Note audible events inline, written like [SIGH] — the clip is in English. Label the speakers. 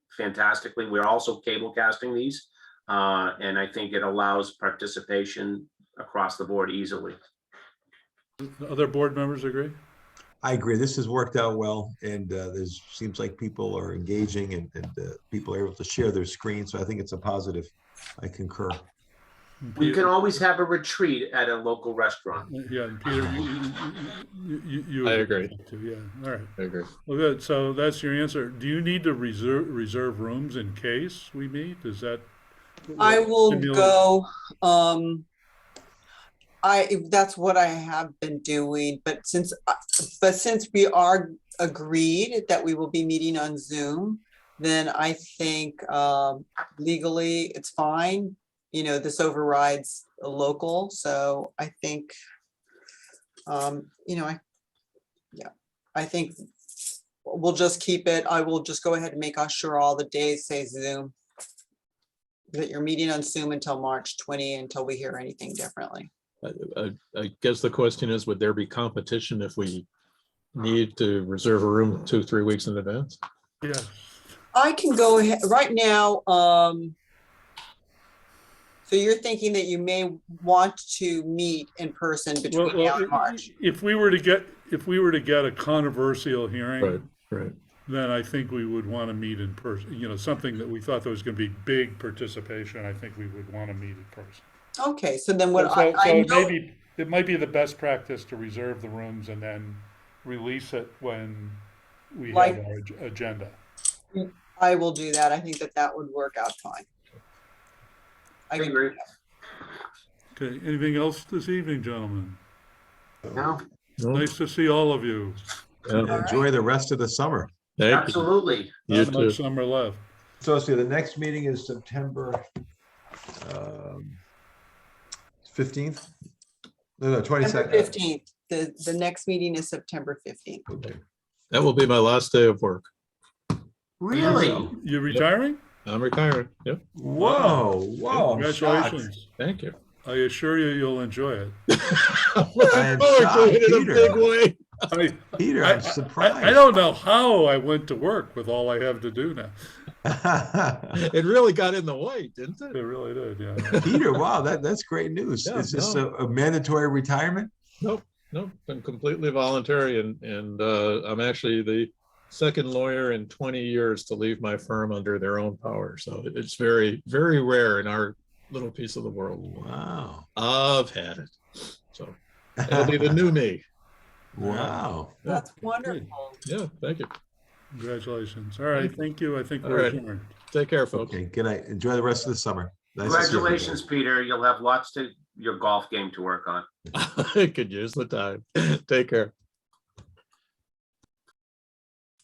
Speaker 1: fantastically. We're also cable casting these. Uh, and I think it allows participation across the board easily.
Speaker 2: The Other board members agree?
Speaker 3: I agree. This has worked out well, and uh, there's seems like people are engaging and, and uh, people are able to share their screen. So I think it's a positive. I concur.
Speaker 1: We can always have a retreat at a local restaurant.
Speaker 2: Uh, Yeah, and Peter, you, you- you, you.
Speaker 4: I
Speaker 2: too, Yeah, all right.
Speaker 4: I agree.
Speaker 2: Well, good. So that's your answer. Do you need to reserve, reserve rooms in case we meet? Is that?
Speaker 5: I will
Speaker 2: Stimulate-
Speaker 5: go, um, I, that's what I have been doing, but since, uh, but since we are agreed that we will be meeting on Zoom, then I think, um, legally, it's fine. You know, this overrides a local, so I think, um, you know, I, yeah, I think we'll just keep it, I will just go ahead and make sure all the days say Zoom that you're meeting on Zoom until March 20, until we hear anything differently.
Speaker 4: I, I- I guess the question is, would there be competition if we need to reserve a room two, three weeks in advance?
Speaker 2: Yeah,
Speaker 5: I can go ahead, right now, um, so you're thinking that you may want to meet in person
Speaker 2: well,
Speaker 5: between now
Speaker 2: well,
Speaker 5: and March?
Speaker 2: if we were to get, if we were to get a controversial
Speaker 4: Right,
Speaker 2: hearing,
Speaker 4: right.
Speaker 2: then I think we would want to meet in person, you know, something that we thought there was going to be big participation, I think we would want to meet in person.
Speaker 5: Okay, so then
Speaker 2: So
Speaker 5: what I,
Speaker 2: so
Speaker 5: I
Speaker 2: it may
Speaker 5: know,
Speaker 2: be, it might be the best practice to reserve the rooms and then release it when we have
Speaker 5: Like-
Speaker 2: our ag- agenda.
Speaker 5: I will do that. I think that that would work out fine. I can-
Speaker 1: agree.
Speaker 2: Okay, anything else this evening, gentlemen?
Speaker 1: No,
Speaker 4: Well,
Speaker 2: Nice to see all of you.
Speaker 4: yeah.
Speaker 3: Enjoy the rest of the summer.
Speaker 4: Thank you.
Speaker 1: absolutely.
Speaker 4: You
Speaker 2: Not much
Speaker 4: too.
Speaker 2: summer left.
Speaker 3: So let's see. The next meeting is September um, 15th. No, no,
Speaker 5: September
Speaker 3: 22nd.
Speaker 5: 15th, the, the next meeting is September 15th.
Speaker 3: Okay.
Speaker 4: That will be my last day of work.
Speaker 1: Really?
Speaker 2: You retiring?
Speaker 4: I'm retiring. Yep.
Speaker 3: Whoa, whoa. I'm shocked.
Speaker 2: Congratulations.
Speaker 4: Thank [LAUGHS] you.
Speaker 2: I assure you, you'll enjoy it.
Speaker 4: [LAUGHS] I'm looking
Speaker 3: am
Speaker 4: forward to it in a
Speaker 3: shocked,
Speaker 4: big
Speaker 3: Peter.
Speaker 4: way.
Speaker 2: I,
Speaker 3: Peter,
Speaker 2: I-
Speaker 3: I'm surprised.
Speaker 2: I I don't know how I went to work with all I have to do now. [LAUGHS]
Speaker 4: It really got in the way, didn't
Speaker 2: It
Speaker 4: it?
Speaker 2: really did,
Speaker 4: [LAUGHS]
Speaker 2: yeah.
Speaker 3: Peter, wow, that, that's great news.
Speaker 4: Yeah,
Speaker 3: Is this a a mandatory retirement?
Speaker 4: Nope, nope, been completely voluntary and, and, uh, I'm actually the second lawyer in twenty years to leave my firm under their own power. So it's very, very rare in our little piece of the world.
Speaker 3: Wow.
Speaker 4: I've had it. So that'll
Speaker 3: [LAUGHS]
Speaker 4: be the new me.
Speaker 3: Wow.
Speaker 4: Yeah.
Speaker 5: That's wonderful.
Speaker 4: Yeah, thank you.
Speaker 2: Congratulations. All right, thank you. I think
Speaker 4: All
Speaker 2: we're
Speaker 4: right.
Speaker 2: adjourned.
Speaker 4: Take care, folks.
Speaker 3: Okay, good night. Enjoy the rest of the summer. Nice to see everybody.
Speaker 1: Congratulations, Peter. You'll have lots to your golf game to work on.
Speaker 4: [LAUGHS] I could use the time. Take care.